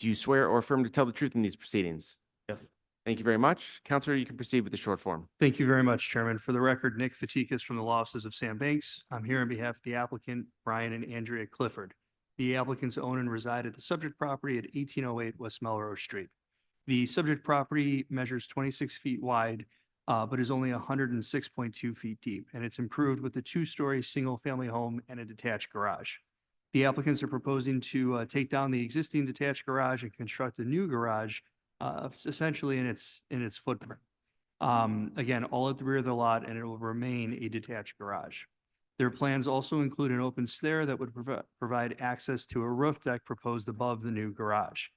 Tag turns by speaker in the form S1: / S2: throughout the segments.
S1: Do you swear or affirm to tell the truth in these proceedings?
S2: Yes.
S1: Thank you very much. Counselor, you can proceed with the short form.
S2: Thank you very much, Chairman. For the record, Nick Fatikas from the Law Offices of Sam Banks. I'm here on behalf of the applicant, Brian and Andrea Clifford. The applicants own and reside at the subject property at eighteen oh eight West Melrose Street. The subject property measures twenty-six feet wide, uh, but is only hundred and six point two feet deep, and it's improved with a two-story, single-family home and a detached garage. The applicants are proposing to, uh, take down the existing detached garage and construct a new garage, uh, essentially in its, in its footprint. Um, again, all at the rear of the lot, and it will remain a detached garage. Their plans also include an open stair that would provi- provide access to a roof deck proposed above the new garage.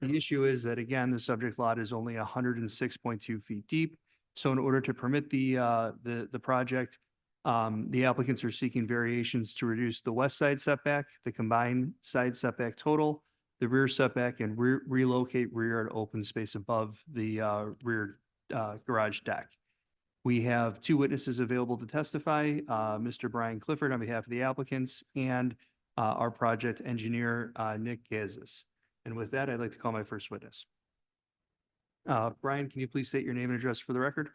S2: The issue is that, again, the subject lot is only hundred and six point two feet deep. So in order to permit the, uh, the, the project, um, the applicants are seeking variations to reduce the west side setback, the combined side setback total, the rear setback, and re- relocate rear and open space above the, uh, rear uh, garage deck. We have two witnesses available to testify, uh, Mr. Brian Clifford on behalf of the applicants and uh, our project engineer, uh, Nick Gazis. And with that, I'd like to call my first witness. Uh, Brian, can you please state your name and address for the record?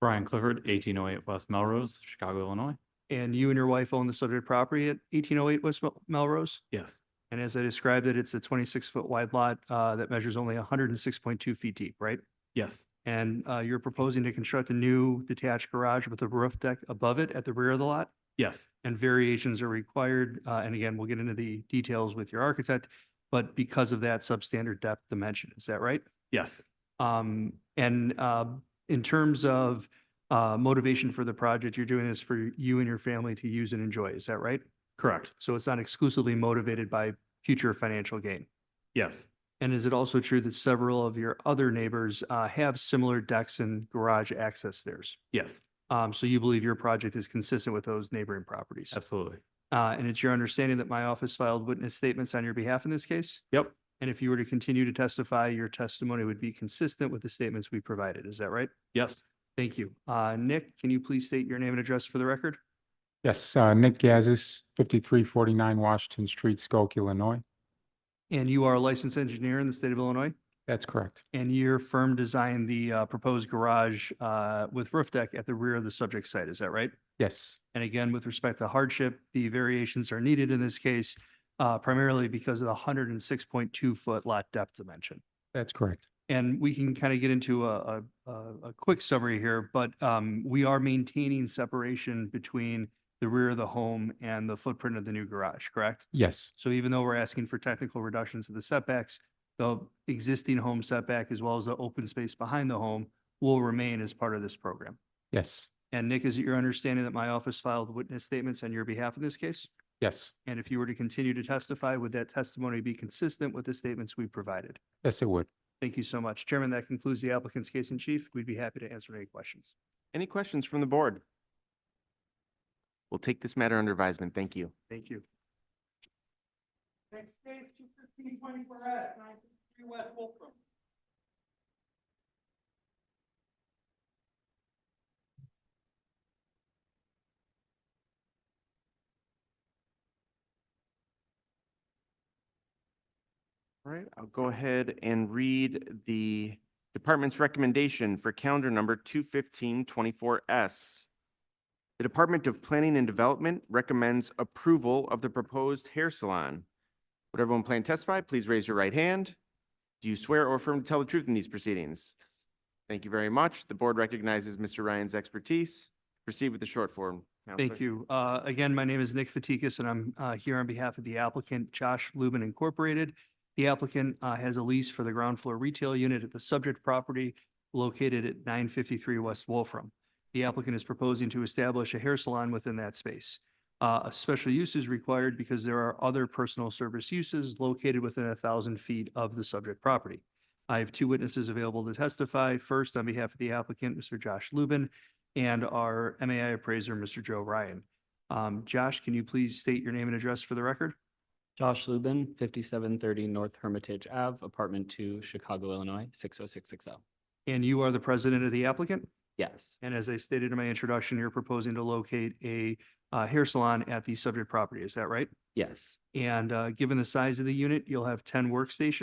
S3: Brian Clifford, eighteen oh eight West Melrose, Chicago, Illinois.
S2: And you and your wife own the subject property at 1808 West Mel- Melrose?
S3: Yes.
S2: And as I described it, it's a 26-foot wide lot uh, that measures only 106.2 feet deep, right?
S3: Yes,
S2: And uh, you're proposing to construct a new detached garage with a roof deck above it at the rear of the lot?
S3: yes,
S2: and variations are required. Uh, and again, we'll get into the details with your architect, but because of that substandard depth dimension, is that right?
S3: yes,
S2: Um, and, uh, in terms of, uh, motivation for the project, you're doing this for you and your family to use and enjoy, is that right?
S3: correct,
S2: So it's not exclusively motivated by future financial gain?
S3: yes,
S2: And is it also true that several of your other neighbors, uh, have similar decks and garage access stairs?
S3: yes,
S2: Um, so you believe your project is consistent with those neighboring properties?
S3: absolutely.
S2: Uh, and it's your understanding that my office filed witness statements on your behalf in this case?
S3: Yep,
S2: And if you were to continue to testify, your testimony would be consistent with the statements we provided. Is that right?
S3: yes,
S2: Thank you. Uh, Nick, can you please state your name and address for the record?
S4: Yes, uh, Nick Gazis, fifty-three forty-nine Washington Street, Skokie, Illinois.
S2: And you are a licensed engineer in the state of Illinois,
S4: That's correct.
S2: and your firm designed the uh, proposed garage uh, with roof deck at the rear of the subject site. Is that right?
S4: Yes,
S2: And again, with respect to hardship, the variations are needed in this case uh, primarily because of the 106.2 foot lot depth dimension.
S4: that's correct.
S2: And we can kind of get into a, a, a, a quick summary here, but, um, we are maintaining separation between the rear of the home and the footprint of the new garage, correct?
S4: Yes,
S2: So even though we're asking for technical reductions to the setbacks, the existing home setback as well as the open space behind the home will remain as part of this program.
S4: yes,
S2: And Nick, is it your understanding that my office filed witness statements on your behalf in this case?
S4: yes,
S2: And if you were to continue to testify, would that testimony be consistent with the statements we provided?
S4: yes, it would.
S2: Thank you so much. Chairman, that concludes the applicant's case in chief. We'd be happy to answer any questions.
S1: Any questions from the board? We'll take this matter under advisement. Thank you.
S2: Thank you.
S5: Next case, two fifteen twenty-four S, nine fifty-three West Wolfram.
S1: All right, I'll go ahead and read the department's recommendation for calendar number 21524S. The Department of Planning and Development recommends approval of the proposed hair salon. Would everyone plan to testify? Please raise your right hand. Do you swear or affirm to tell the truth in these proceedings? Thank you very much. The board recognizes Mr. Ryan's expertise. Proceed with the short form.
S2: Thank you. Uh, Again, my name is Nick Fatikas, and I'm uh, here on behalf of the applicant, Josh Lubin Incorporated. The applicant uh, has a lease for the ground floor retail unit at the subject property located at 953 West Wolfram. The applicant is proposing to establish a hair salon within that space. Uh, A special use is required because there are other personal service uses located within a 1,000 feet of the subject property. I have two witnesses available to testify. First, on behalf of the applicant, Mr. Josh Lubin, and our MAI appraiser, Mr. Joe Ryan. Um, Josh, can you please state your name and address for the record?
S6: Josh Lubin, fifty-seven thirty North Hermitage Ave, apartment two, Chicago, Illinois, six oh six six oh.
S2: And you are the president of the applicant?
S6: Yes,
S2: And as I stated in my introduction, you're proposing to locate a uh, hair salon at the subject property, is that right?
S6: yes.
S2: And uh, given the size of the unit, you'll have 10 workstations.